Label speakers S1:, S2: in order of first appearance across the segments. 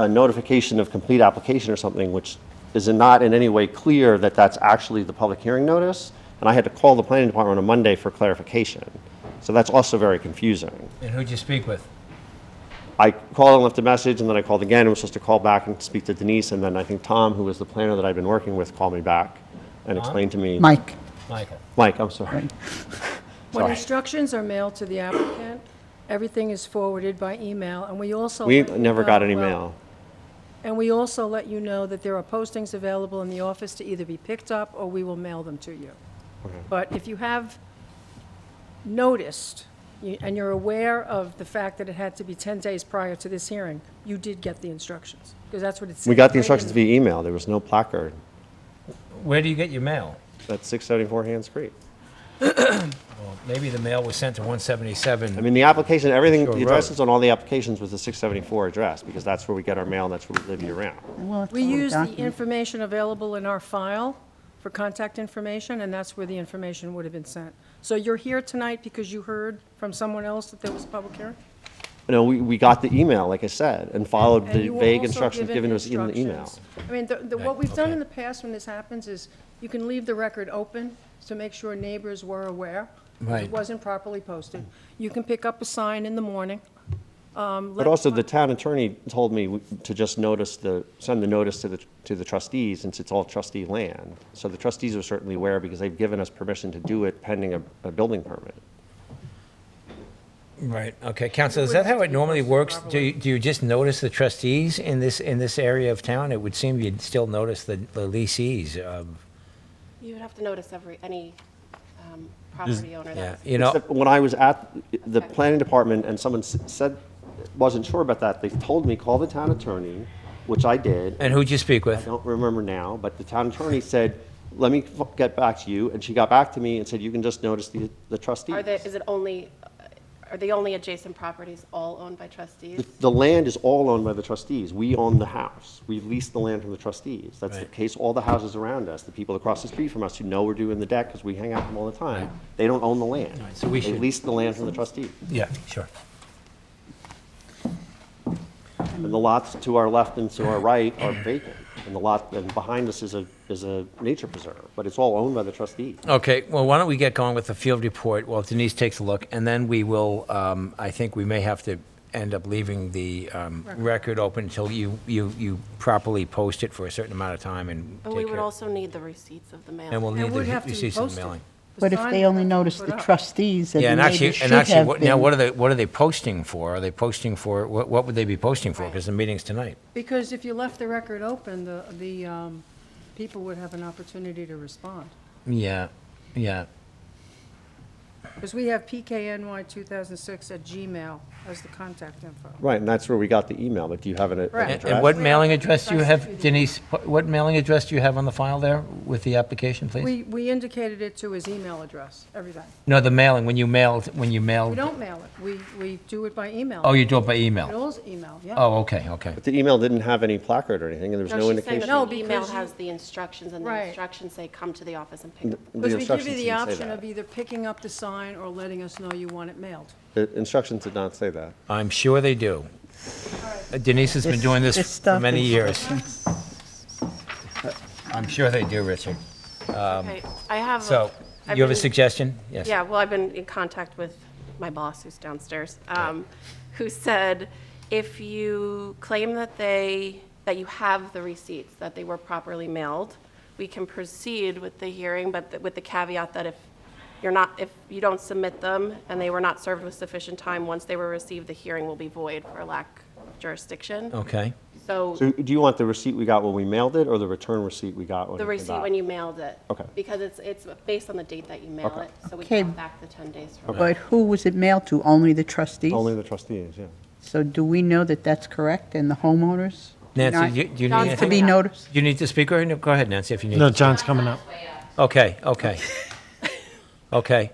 S1: a notification of complete application or something, which is not in any way clear that that's actually the public hearing notice. And I had to call the planning department on Monday for clarification. So that's also very confusing.
S2: And who'd you speak with?
S1: I called and left a message, and then I called again, and was supposed to call back and speak to Denise, and then I think Tom, who was the planner that I'd been working with, called me back and explained to me.
S3: Mike,
S2: Michael.
S1: Mike, I'm sorry.
S4: When
S1: Sorry.
S4: instructions are mailed to the applicant, everything is forwarded by email, and we also.
S1: We
S4: let you
S1: never got
S4: know-
S1: any
S4: well,
S1: mail.
S4: And we also let you know that there are postings available in the office to either be picked up, or we will mail them to you. But if you have noticed, you- and you're aware of the fact that it had to be 10 days prior to this hearing, you did get the instructions, because that's what it said.
S1: We got the
S4: right in
S1: instructions via email. There was no placard.
S2: Where do you get your mail?
S1: That's 674 Hands Creek.
S2: Well, maybe the mail was sent to
S1: I
S2: 177.
S1: mean, the application, everything,
S2: Sure,
S1: the
S2: right.
S1: addresses on all the applications was the 674 address, because that's where we get our mail, and that's where we live year-round.
S3: well, it's
S4: We
S3: all
S4: use the
S3: documented.
S4: information available in our file for contact information, and that's where the information would have been sent. So you're here tonight because you heard from someone else that there was a public hearing?
S1: You know, we, we got the email, like I said, and followed
S4: And
S1: the
S4: you were
S1: vague
S4: also
S1: instructions given to us in the email.
S4: instructions. I mean, the- the- what we've done in the past when this happens is, you can leave the record open to make sure neighbors were aware.
S2: Right.
S4: It wasn't properly posted. You can pick up a sign in the morning. um,
S1: But
S4: let-
S1: also, the town attorney told me w- to just notice the, send the notice to the, to the trustees, since it's all trustee land. So the trustees are certainly aware, because they've given us permission to do it pending a, a building permit.
S2: Right, okay. Counsel, is that how it normally works? Do you, do you just notice the trustees in this, in this area of town? It would seem you'd still notice the the leasees. um,
S5: You would have to notice every, any um, property owner
S2: Yeah,
S5: that
S2: you know,
S1: Except When I was at the planning department and someone s- said, wasn't sure about that, they told me, call the town attorney, which I did.
S2: and who'd you speak
S1: I
S2: with?
S1: don't remember now, but the town attorney said, let me f- get back to you, and she got back to me and said, you can just notice the, the trustees.
S5: Are there, is it only, uh, are the only adjacent properties all owned by trustees?
S1: The- The land is all owned by the trustees. We own the house. We lease the land from the trustees. That's the
S2: Right.
S1: case, all the houses around us, the people across the street from us who know we're doing the deck because we hang out with them all the time. They don't own the land.
S2: so we
S1: They
S2: should-
S1: lease the land from the trustees.
S2: Yeah, sure.
S1: And the lots to our left and to our right are vacant. And the lot, and behind us is a, is a nature preserve, but it's all owned by the trustees.
S2: Okay, well, why don't we get going with the field report while Denise takes a look, and then we will, um, I think we may have to end up leaving the um, record open until you, you, you properly post it for a certain amount of time and
S5: And we
S2: take
S5: would
S2: care.
S5: also need the receipts of the mail.
S2: And we'll
S4: It
S2: need
S4: would have
S2: the
S4: to be
S2: receipts and
S4: posted.
S2: mailing.
S4: The
S3: But if
S4: sign
S3: they
S4: would
S3: only
S4: have to be
S3: notice
S4: put
S3: the
S4: up.
S3: trustees, then
S2: Yeah,
S3: the
S2: and actually,
S3: neighbors should
S2: and actually,
S3: have
S2: what- now, what are
S3: been.
S2: they, what are they posting for? Are they posting for, what, what would they be posting for?
S5: Right.
S2: Because the meeting's tonight.
S4: Because if you left the record open, the, the um, people would have an opportunity to respond.
S2: Yeah, yeah.
S4: Because we have pkny2006 at Gmail as the contact info.
S1: Right, and that's where we got the email, but do you have an an
S4: Right.
S2: And-
S1: address?
S2: And what
S4: We
S2: mailing
S4: have-
S2: address do you
S4: I
S2: have,
S4: sent you the-
S2: Denise, what what mailing address do you have on the file there with the application, please?
S4: We, we indicated it to his email address, everything.
S2: No, the mailing, when you mailed, when you
S4: We
S2: mailed,
S4: don't mail it, we, we do it by email.
S2: oh, you do it by
S4: It
S2: email?
S4: all is email, yeah.
S2: Oh, okay, okay.
S1: But the email didn't have any placard or anything, and there was no
S5: No, she's saying
S1: indication.
S4: No,
S5: that the email
S4: because you-
S5: has the instructions, and
S4: Right.
S5: the instructions say, come to the office and pick up.
S1: The
S4: Because we give you
S1: instructions didn't
S4: the
S1: say
S4: option
S1: that.
S4: of either picking up the sign or letting us know you want it mailed.
S1: The instructions did not say that.
S2: I'm sure they do. Denise has been doing this for
S3: stuff
S2: many
S3: is-
S2: years. I'm sure they do, Richard.
S5: Okay, I have. a-
S2: um, So,
S5: I've
S2: you have a
S5: been-
S2: suggestion? Yes.
S5: Yeah, well, I've been in contact with my boss, who's downstairs, um, who said if you claim that they, that you have the receipts, that they were properly mailed, we can proceed with the hearing, but th- with the caveat that if you're not, if you don't submit them and they were not served with sufficient time, once they were received, the hearing will be void for lack of jurisdiction.
S2: Okay.
S5: So
S1: So do you want the receipt we got when we mailed it, or the return receipt we got when
S5: the
S1: it came
S5: receipt
S1: back?
S5: when you mailed it.
S1: Okay.
S5: Because it's, it's based on the date that you mail
S1: Okay.
S5: it, so we
S3: Okay.
S5: count back the 10 days from
S3: But who was it mailed to? Only the trustees?
S1: Only the trustees, yeah.
S3: So do we know that that's correct and the homeowners? not-
S2: Nancy, do you
S5: John's
S2: need
S3: To be
S2: anything?
S5: coming up.
S3: noticed?
S2: You need to speak, or, no, go ahead, Nancy, if you need.
S6: No, John's coming up.
S2: Okay, okay. Okay.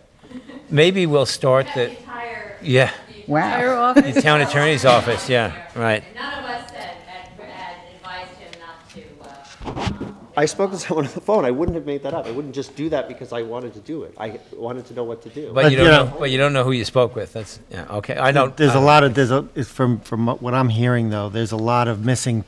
S2: Maybe we'll start the,
S7: entire
S2: yeah,
S3: Wow.
S4: Fire off,
S2: the town attorney's office, yeah, right.
S7: None of us had, had had advised him not to, uh, um,
S1: I spoke to someone on the phone. I wouldn't have made that up. I wouldn't just do that because I wanted to do it. I wanted to know what to do.
S2: But you
S6: But, you
S2: don't know,
S6: know-
S2: but you don't know who you spoke with. That's, yeah, okay. I don't. I
S6: There's a
S2: don't-
S6: lot of, there's a, it's from, from what I'm hearing though, there's a lot of missing